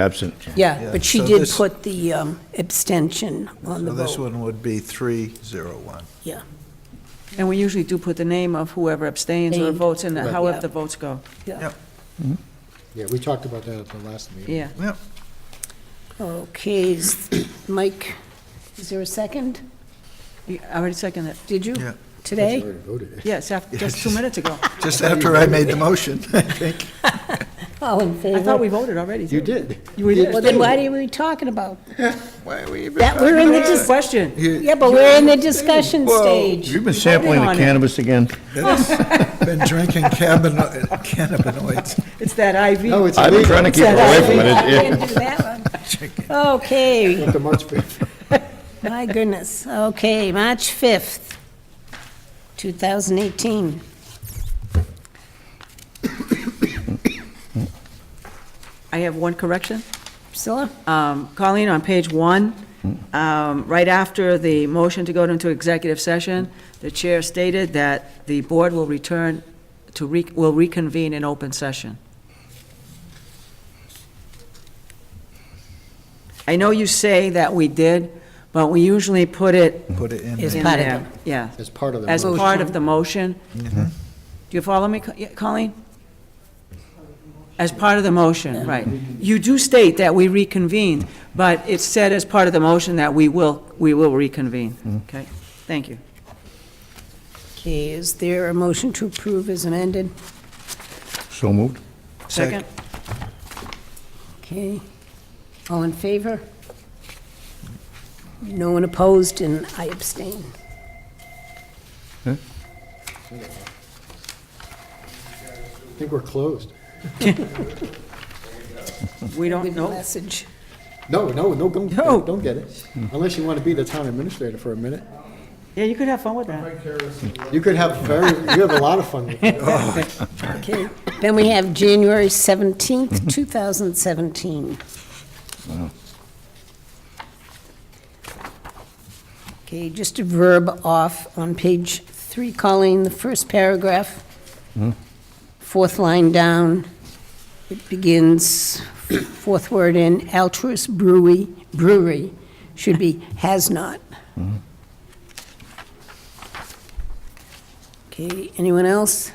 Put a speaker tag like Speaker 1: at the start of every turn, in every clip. Speaker 1: Absent.
Speaker 2: Yeah,
Speaker 3: Yeah,
Speaker 2: but she
Speaker 3: so
Speaker 2: did
Speaker 3: this-
Speaker 2: put the um, abstention on the
Speaker 3: So this
Speaker 2: vote.
Speaker 3: one would be 301.
Speaker 4: And we usually do put the name of whoever abstains or
Speaker 2: Abstained.
Speaker 4: votes in,
Speaker 2: Right.
Speaker 4: however
Speaker 2: Yeah.
Speaker 4: the votes go.
Speaker 3: Yep.
Speaker 5: Yeah, we talked about that at the last meeting.
Speaker 4: Yeah.
Speaker 3: Yep,
Speaker 2: Okay, is- Mike, is there a second?
Speaker 4: You- I already seconded it.
Speaker 2: Did you?
Speaker 3: yeah.
Speaker 5: You
Speaker 2: Today?
Speaker 5: already voted it.
Speaker 4: Yes, af- just two minutes ago.
Speaker 3: Just after I made the motion, I think.
Speaker 2: All in favor?
Speaker 4: I thought we voted already.
Speaker 5: You
Speaker 4: too.
Speaker 5: did.
Speaker 4: We did.
Speaker 2: Well, then what are we talking about?
Speaker 3: Why are we even
Speaker 2: That we're in the, dis-
Speaker 4: Question.
Speaker 2: yeah, but we're in the discussion stage.
Speaker 1: You've been sampling the
Speaker 4: on it.
Speaker 1: cannabis again?
Speaker 3: Been drinking cannabino- cannabinoids.
Speaker 4: It's that IV.
Speaker 5: No, it's
Speaker 1: I've been trying to
Speaker 5: illegal.
Speaker 1: keep away from it.
Speaker 2: Can't do that one. Okay,
Speaker 5: At the March 5th.
Speaker 2: my goodness. Okay, March 5th, 2018.
Speaker 4: I have one correction.
Speaker 2: Priscilla?
Speaker 4: Um, Colleen, on page one, um, right after the motion to go into executive session, the chair stated that the board will return to, re- will reconvene in open session. I know you say that we did, but we usually put it
Speaker 3: Put it in
Speaker 2: Is-
Speaker 3: there.
Speaker 4: in
Speaker 2: part of
Speaker 4: there. Yeah,
Speaker 5: as part of the.
Speaker 4: as
Speaker 5: motion.
Speaker 4: part of the Mm-hmm. motion. Do you follow me, Co- yeah, Colleen? As part of the motion, right. You do state that we reconvened, but it's said as part of the motion that we will, we will reconvene. Okay, thank you.
Speaker 2: Okay, is there a motion to approve as amended?
Speaker 1: So moved.
Speaker 4: Second?
Speaker 2: Okay. All in favor? No one opposed, and I abstain.
Speaker 5: I think we're closed.
Speaker 4: We don't
Speaker 2: Good
Speaker 4: know.
Speaker 2: message.
Speaker 5: No, no, no, don't,
Speaker 4: No.
Speaker 5: don't get it. Unless you want to be the town administrator for a minute.
Speaker 4: Yeah, you could have fun with that.
Speaker 5: You could have very, you have a lot of fun with it.
Speaker 2: Okay. Then we have January 17th, 2017. Okay, just a verb off on page three, Colleen, the first paragraph. Fourth line down, it begins, fourth word in, altruist brewery, brewery, should be has not. Okay, anyone else?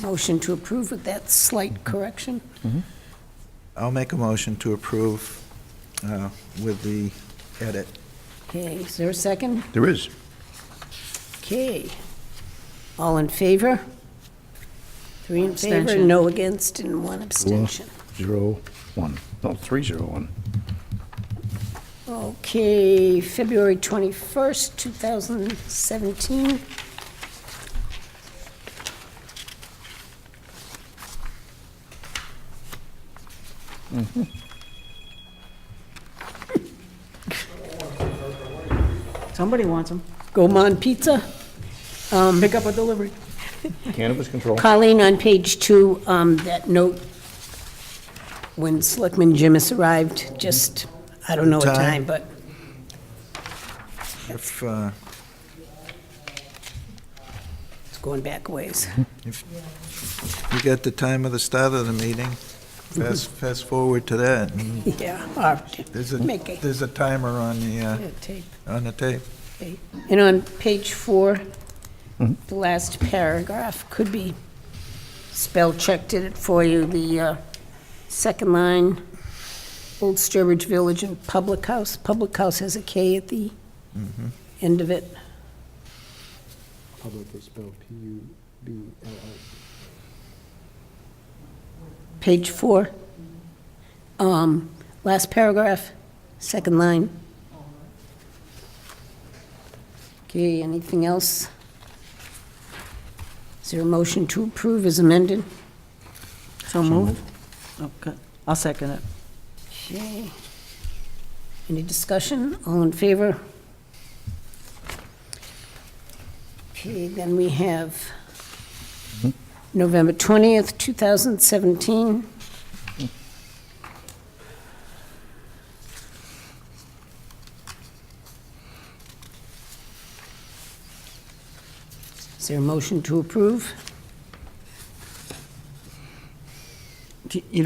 Speaker 2: Motion to approve with that slight correction?
Speaker 3: I'll make a motion to approve uh, with the edit.
Speaker 2: Okay, is there a second?
Speaker 1: There is.
Speaker 2: Okay. All in favor? Three in favor,
Speaker 4: Abstention.
Speaker 2: no against, and one abstention.
Speaker 1: Zero, one. No, three, zero, one.
Speaker 2: Okay, February 21st, 2017.
Speaker 4: Somebody wants them.
Speaker 2: Gourmand Pizza.
Speaker 4: Pick up a delivery.
Speaker 1: Cannabis control.
Speaker 2: Colleen, on page two, um, that note, when Selectman Jimis arrived, just, I don't know what time,
Speaker 3: Time.
Speaker 2: but
Speaker 3: If, uh,
Speaker 2: it's going back a ways.
Speaker 3: if you get the time of the start of the meeting, fast, fast forward to that. and
Speaker 2: Yeah, all right.
Speaker 3: There's a,
Speaker 2: Make it.
Speaker 3: there's a timer on the, uh,
Speaker 2: Take-
Speaker 3: on the tape.
Speaker 2: And on page four, the last paragraph could be spell checked, did it for you, the uh, second line, Old Sturbridge Village and Public House. Public House has a K at the end of it.
Speaker 5: Public is spelled P-U-B-L-I.
Speaker 2: Page four, um, last paragraph, second line. Okay, anything else? Is there a motion to approve as amended?
Speaker 4: So moved. Okay, I'll second it.
Speaker 2: Okay. Any discussion? All in favor? Okay, then we have November 20th, 2017. Is there a motion to approve?
Speaker 4: do- you